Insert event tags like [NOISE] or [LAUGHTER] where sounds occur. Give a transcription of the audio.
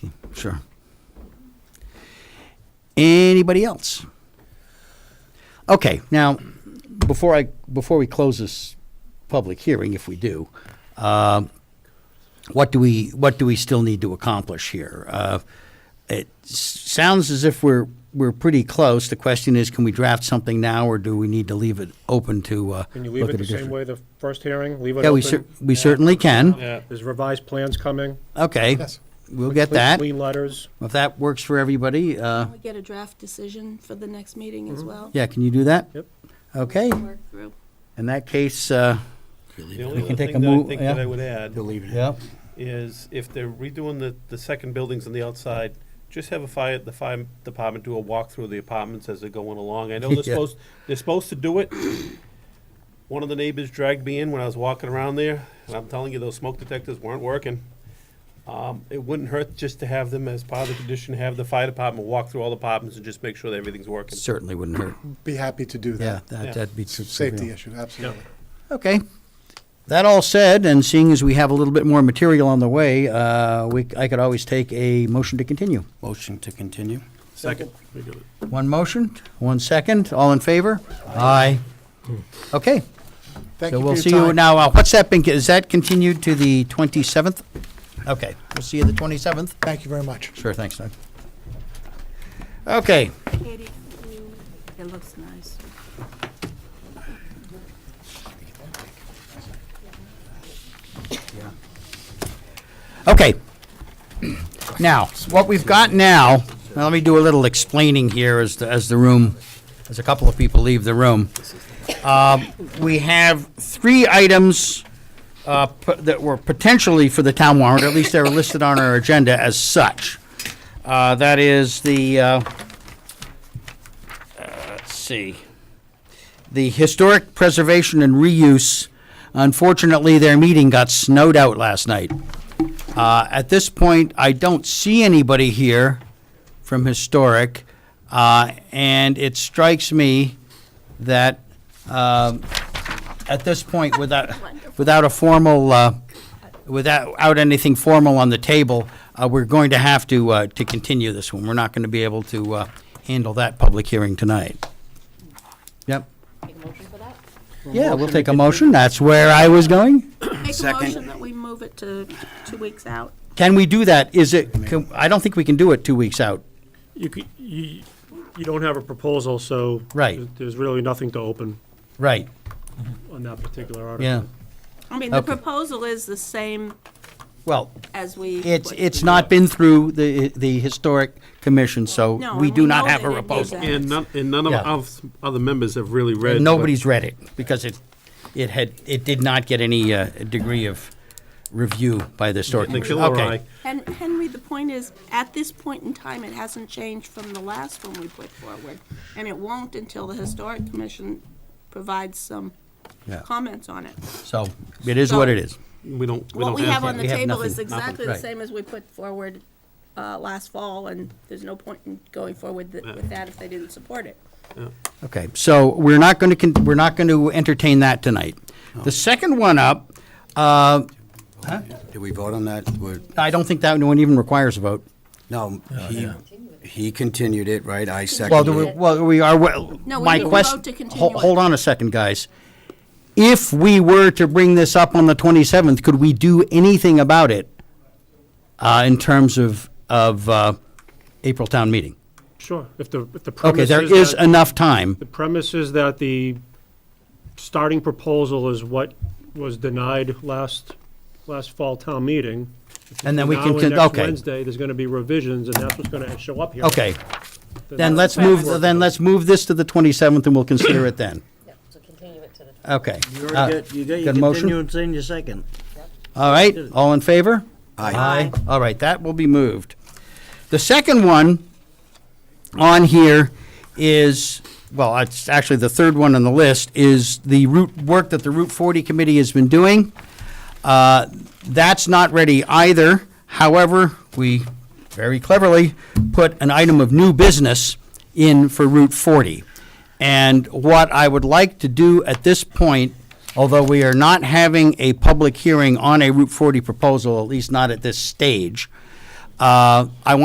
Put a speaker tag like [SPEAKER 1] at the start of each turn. [SPEAKER 1] Sure. Anybody else? Okay, now, before I, before we close this public hearing, if we do, um, what do we, what do we still need to accomplish here? Uh, It s- sounds as if we're, we're pretty close. The question is, can we draft something now, or do we need to leave it open to, uh?
[SPEAKER 2] Can you leave
[SPEAKER 1] look
[SPEAKER 2] it
[SPEAKER 1] at
[SPEAKER 2] the
[SPEAKER 1] a
[SPEAKER 2] same
[SPEAKER 1] different-
[SPEAKER 2] way the first hearing? Leave it
[SPEAKER 1] Yeah, we cer-
[SPEAKER 2] open?
[SPEAKER 1] we certainly can.
[SPEAKER 2] Yeah. There's revised plans coming.
[SPEAKER 1] Okay, we'll get
[SPEAKER 2] Clean-
[SPEAKER 1] that.
[SPEAKER 2] Clean letters.
[SPEAKER 1] If that works for everybody, uh,
[SPEAKER 3] We get a draft decision for the next meeting as well.
[SPEAKER 1] Mm-hmm. yeah, can you do that?
[SPEAKER 2] Yep.
[SPEAKER 1] Okay,
[SPEAKER 3] Work through.
[SPEAKER 1] in that case, uh,
[SPEAKER 4] The
[SPEAKER 1] We
[SPEAKER 4] only
[SPEAKER 1] can
[SPEAKER 4] other
[SPEAKER 1] take a
[SPEAKER 4] thing that I
[SPEAKER 1] move-
[SPEAKER 4] think
[SPEAKER 1] yeah.
[SPEAKER 4] that I would add
[SPEAKER 1] yeah,
[SPEAKER 4] is if they're redoing the, the second buildings on the outside, just have a fire, the fire department do a walkthrough of the apartments as they're going along. I
[SPEAKER 1] [LAUGHS]
[SPEAKER 4] know
[SPEAKER 1] Yeah.
[SPEAKER 4] they're supposed, they're supposed to do it. One of the neighbors dragged me in when I was walking around there, and I'm telling you, those smoke detectors weren't working. Um, it wouldn't hurt just to have them as part of the condition, have the fire department walk through all the apartments and just make sure that everything's working.
[SPEAKER 1] certainly wouldn't hurt.
[SPEAKER 5] Be happy to do
[SPEAKER 1] Yeah,
[SPEAKER 5] that.
[SPEAKER 4] Yeah.
[SPEAKER 1] that- that'd be.
[SPEAKER 5] It's a safety issue, absolutely.
[SPEAKER 1] Okay. That all said, and seeing as we have a little bit more material on the way, uh, we, I could always take a motion to continue.
[SPEAKER 6] Motion to continue?
[SPEAKER 4] Second.
[SPEAKER 1] One motion, one second, all in favor? Aye. Okay,
[SPEAKER 5] Thank
[SPEAKER 1] so
[SPEAKER 5] you
[SPEAKER 1] we'll
[SPEAKER 5] for
[SPEAKER 1] see
[SPEAKER 5] your
[SPEAKER 1] you
[SPEAKER 5] time.
[SPEAKER 1] now. uh, What's that been, is that continued to the 27th? Okay, we'll see you the 27th.
[SPEAKER 5] Thank you very much.
[SPEAKER 1] Sure, thanks, Doug. Okay,
[SPEAKER 3] Katie, you- it looks nice.
[SPEAKER 1] Okay. Now, what we've got now, now let me do a little explaining here as, the- as the room, as a couple of people leave the room. Um, We have three items uh, p- that were potentially for the town warrant, at least they're listed on our agenda as such. Uh, That is the, uh, uh, let's see, the Historic Preservation and Reuse. Unfortunately, their meeting got snowed out last night. Uh, At this point, I don't see anybody here from Historic, uh, and it strikes me that um, at this point, without, without a formal, uh, without out anything formal on the table, uh, we're going to have to, uh, to continue this one. We're not going to be able to uh, handle that public hearing tonight. Yep. Yeah, we'll take a motion. That's where I was going.
[SPEAKER 3] Make a
[SPEAKER 6] Second.
[SPEAKER 3] motion that we move it to two weeks out.
[SPEAKER 1] Can we do that? Is it, can- I don't think we can do it two weeks out.
[SPEAKER 2] You, c- you, you don't have a proposal, so.
[SPEAKER 1] Right.
[SPEAKER 2] there- There's really nothing to open
[SPEAKER 1] Right,
[SPEAKER 2] on that particular article.
[SPEAKER 1] yeah.
[SPEAKER 3] I mean, the
[SPEAKER 1] Okay.
[SPEAKER 3] proposal is the same
[SPEAKER 1] Well,
[SPEAKER 3] as we.
[SPEAKER 1] it's, it's not been through the, the historic commission, so
[SPEAKER 3] No,
[SPEAKER 1] we
[SPEAKER 3] and
[SPEAKER 1] do
[SPEAKER 3] we
[SPEAKER 1] not
[SPEAKER 3] know
[SPEAKER 1] have
[SPEAKER 3] they
[SPEAKER 1] a
[SPEAKER 3] didn't do
[SPEAKER 1] proposal.
[SPEAKER 3] that.
[SPEAKER 4] And none, and none of
[SPEAKER 1] Yeah.
[SPEAKER 4] us, other members have really read.
[SPEAKER 1] And
[SPEAKER 4] what-
[SPEAKER 1] Nobody's read it because it, it had, it did not get any uh, degree of review by the historic
[SPEAKER 4] The
[SPEAKER 1] commission.
[SPEAKER 4] killer
[SPEAKER 1] Okay.
[SPEAKER 4] eye.
[SPEAKER 3] And Henry, the point is, at this point in time, it hasn't changed from the last one we put forward. And it won't until the Historic Commission provides some
[SPEAKER 1] Yeah.
[SPEAKER 3] comments on it.
[SPEAKER 1] So it is what it is.
[SPEAKER 4] We don't, we
[SPEAKER 3] What
[SPEAKER 4] don't
[SPEAKER 3] we have on
[SPEAKER 4] that.
[SPEAKER 3] the
[SPEAKER 1] We have
[SPEAKER 3] table is
[SPEAKER 1] nothing.
[SPEAKER 3] exactly the
[SPEAKER 1] Nothing.
[SPEAKER 3] same as we put forward uh, last fall, and there's no point in going forward th- with that if they didn't support it.
[SPEAKER 1] Okay, so we're not going to, we're not going to entertain that tonight. The second one up, uh,
[SPEAKER 6] Did we vote on that? We're-
[SPEAKER 1] I don't think that one even requires a vote.
[SPEAKER 6] No, he, he continued it, right? I
[SPEAKER 1] Well, do
[SPEAKER 6] seconded
[SPEAKER 1] we,
[SPEAKER 6] it.
[SPEAKER 1] well, we are, well,
[SPEAKER 3] No, we
[SPEAKER 1] my
[SPEAKER 3] need to
[SPEAKER 1] question.
[SPEAKER 3] vote to continue
[SPEAKER 1] Hol-
[SPEAKER 3] it.
[SPEAKER 1] Hold on a second, guys. If we were to bring this up on the 27th, could we do anything about it uh, in terms of, of uh, April town meeting?
[SPEAKER 2] Sure, if the, if the
[SPEAKER 1] Okay,
[SPEAKER 2] premise
[SPEAKER 1] there is
[SPEAKER 2] that-
[SPEAKER 1] enough time.
[SPEAKER 2] The premise is that the starting proposal is what was denied last, last fall town meeting.
[SPEAKER 1] And then we
[SPEAKER 2] Now
[SPEAKER 1] can
[SPEAKER 2] and
[SPEAKER 1] con-
[SPEAKER 2] next
[SPEAKER 1] okay.
[SPEAKER 2] Wednesday, there's gonna be revisions, and that's what's gonna show up here.
[SPEAKER 1] Okay, then let's
[SPEAKER 2] that's what
[SPEAKER 1] move,
[SPEAKER 2] we're-
[SPEAKER 1] then let's move this to the 27th and we'll consider it then.
[SPEAKER 7] Yeah, so continue it to the
[SPEAKER 1] Okay.
[SPEAKER 8] You
[SPEAKER 1] Uh,
[SPEAKER 8] already got, you got your
[SPEAKER 1] got a motion?
[SPEAKER 8] continuance in your second.
[SPEAKER 1] All right, all in favor?
[SPEAKER 6] Aye.
[SPEAKER 1] All right, that will be moved. The second one on here is, well, it's actually the third one on the list, is the route, work that the Route 40 Committee has been doing. Uh, That's not ready either. However, we very cleverly put an item of new business in for Route 40. And what I would like to do at this point, although we are not having a public hearing on a Route 40 proposal, at least not at this stage, uh, I want